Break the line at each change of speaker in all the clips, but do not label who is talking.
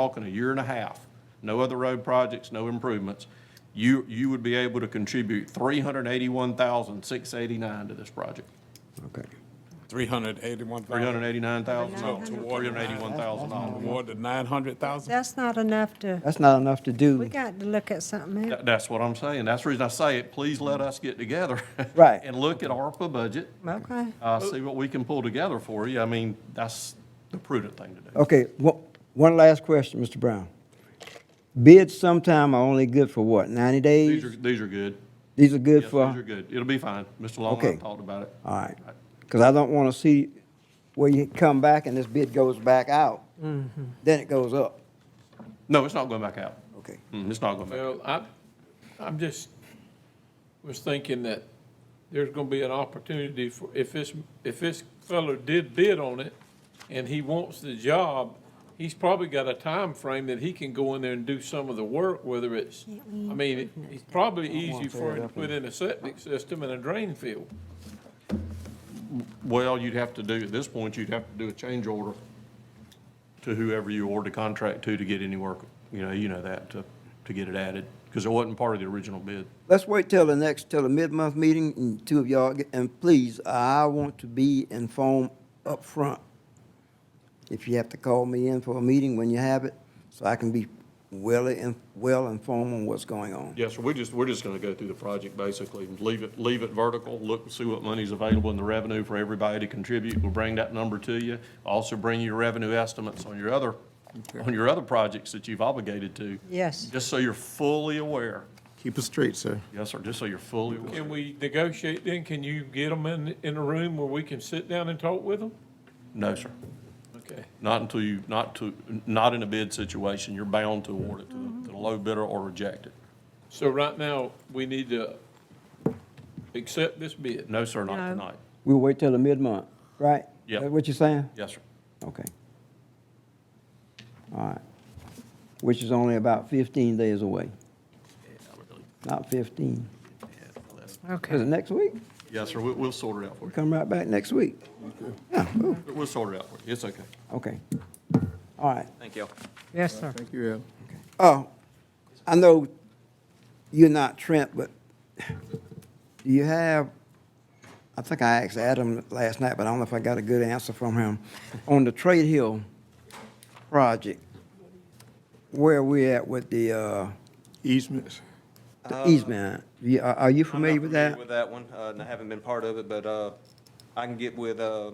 talking a year and a half, no other road projects, no improvements, you, you would be able to contribute three hundred eighty-one thousand, six eighty-nine to this project.
Okay.
381,000.
Three hundred eighty-nine thousand dollars,
Nine
three
hundred.
hundred eighty-one thousand dollars.
Awarded 900,000?
That's not enough to,
That's not enough to
we
do.
got to look at something else.
That, that's what I'm saying. That's the reason I say it. Please let us get together.
Right.
And look at ARPA budget,
Okay.
uh, see what we can pull together for you. I mean, that's the prudent thing to do.
Okay, one, one last question, Mr. Brown. Bids sometime are only good for what, 90
These are,
days?
these are good.
These are good
Yes, these are
for,
good. It'll be fine. Mr. Long
Okay. Uh.
and I talked about it.
all right. Because I don't want to see where you come back and this bid goes back out,
Mm-hmm.
then it goes up.
No, it's not going back out.
Okay.
Mm, It's not going back.
Well, I, I'm just, was thinking that there's gonna be an opportunity for, if this, if this fellow did bid on it and he wants the job, he's probably got a time frame that he can go in there and do some of the work, whether it's, I mean, it- it's probably easy for him to put in a septic system and a drain field.
Well, you'd have to do, at this point, you'd have to do a change order to whoever you award the contract to to get any work, you know, you know that, to, to get it added, because it wasn't part of the original bid.
Let's wait till the next, till the mid-month meeting, and two of y'all, get- and please, I want to be informed up front. If you have to call me in for a meeting when you have it, so I can be well, in- well informed on what's going on.
Yes, sir, we're just, we're just gonna go through the project basically, and leave it, leave it vertical, look, see what money's available in the revenue for everybody to contribute. We'll bring that number to you. Also bring your revenue estimates on your other, on your other projects that you've obligated to.
Yes.
Just so you're fully aware.
Keep it straight, sir.
Yes, sir, just so you're fully aware.
Can we negotiate then? Can you get them in, in a room where we can sit down and talk with them?
No, sir.
Okay.
Not until you, not to, not in a bid situation, you're bound to award it to the- to the low bidder or reject it.
So right now, we need to accept this bid.
No, sir, not
No.
tonight.
We'll wait till the mid-month, right?
Yep.
That what you're saying?
Yes, sir.
Okay. All right. Which is only about fifteen days away. Not fifteen. Is it
Okay.
next week?
Yes, sir, we, we'll sort it out for you.
Come right back next week.
We'll sort it out for you. It's okay.
Okay. All right.
Thank you.
Yes, sir.
Thank you, Al.
Oh, I know you're not Trent, but do you have, I think I asked Adam last night, but I don't know if I got a good answer from him. On the Trade Hill project, where are we at with the, uh,
Easements.
the easement? You- Are are you familiar with
Uh, I'm not
that?
familiar with that one, uh, and I haven't been part of it, but, uh, I can get with, uh,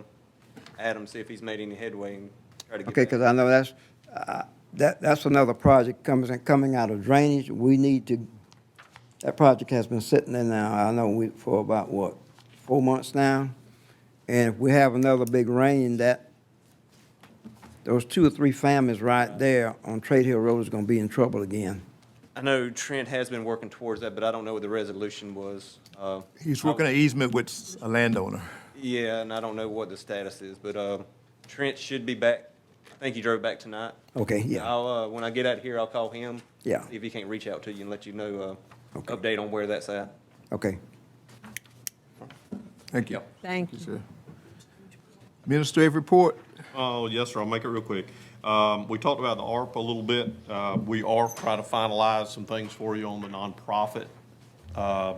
Adam, see if he's made any headway and try to get
Okay,
that.
because I know that's, uh, that, that's another project comes, in- coming out of drainage. We need to, that project has been sitting there now, I know, we for about, what, four months now? And if we have another big rain, that, those two or three families right there on Trade Hill Road is going to be in trouble again.
I know Trent has been working towards that, but I don't know what the resolution was. Uh,
He's working an easement with a landowner.
yeah, and I don't know what the status is, but, uh, Trent should be back. I think he drove back tonight.
Okay, yeah,
I'll, uh, when I get out here, I'll call him.
Yeah.
See if he can't reach out to you and let you know, uh,
Okay.
update on where that's at.
okay.
Thank you.
Thank you.
Yes, sir. Administrative report.
Oh, yes, sir, I'll make it real quick. Um, we talked about the ARP a little bit. Uh, we are trying to finalize some things for you on the nonprofit, uh,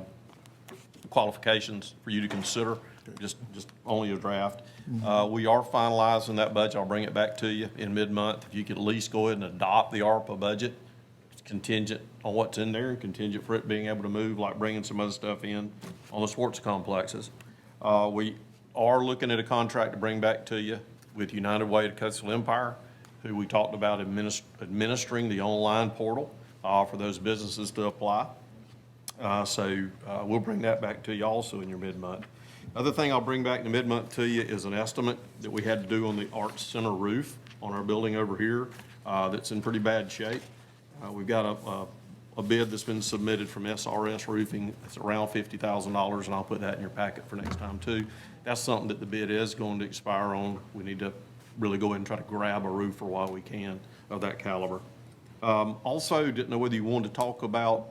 qualifications for you to consider, just, just only a draft. Uh, we are finalizing that budget. I'll bring it back to you in mid-month. If you could at least go ahead and adopt the ARPA budget, it's contingent on what's in there, contingent for it being able to move, like bringing some other stuff in on the sports complexes. Uh, we are looking at a contract to bring back to you with United Way to Coastal Empire, who we talked about adminis- administering the online portal, uh, for those businesses to apply. Uh, So uh, we'll bring that back to you also in your mid-month. Other thing I'll bring back in the mid-month to you is an estimate that we had to do on the Arts Center roof on our building over here uh, that's in pretty bad shape. Uh, We've got a- a a bid that's been submitted from SRS Roofing. It's around $50,000, and I'll put that in your packet for next time, too. That's something that the bid is going to expire on. We need to really go ahead and try to grab a roofer while we can of that caliber. Um, Also, didn't know whether you wanted to talk about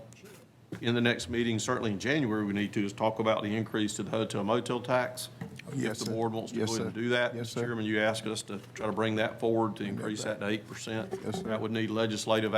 in the next meeting, certainly in January, we need to, is talk about the increase to the hotel motel tax.
Oh, Yes,
if the
sir.
board wants to go
Yes,
ahead and
sir.
do that.
Yes,
Mr.
sir.
Chairman, you asked us to try to bring that forward to increase that to eight percent.
Yes, sir.
That would need legislative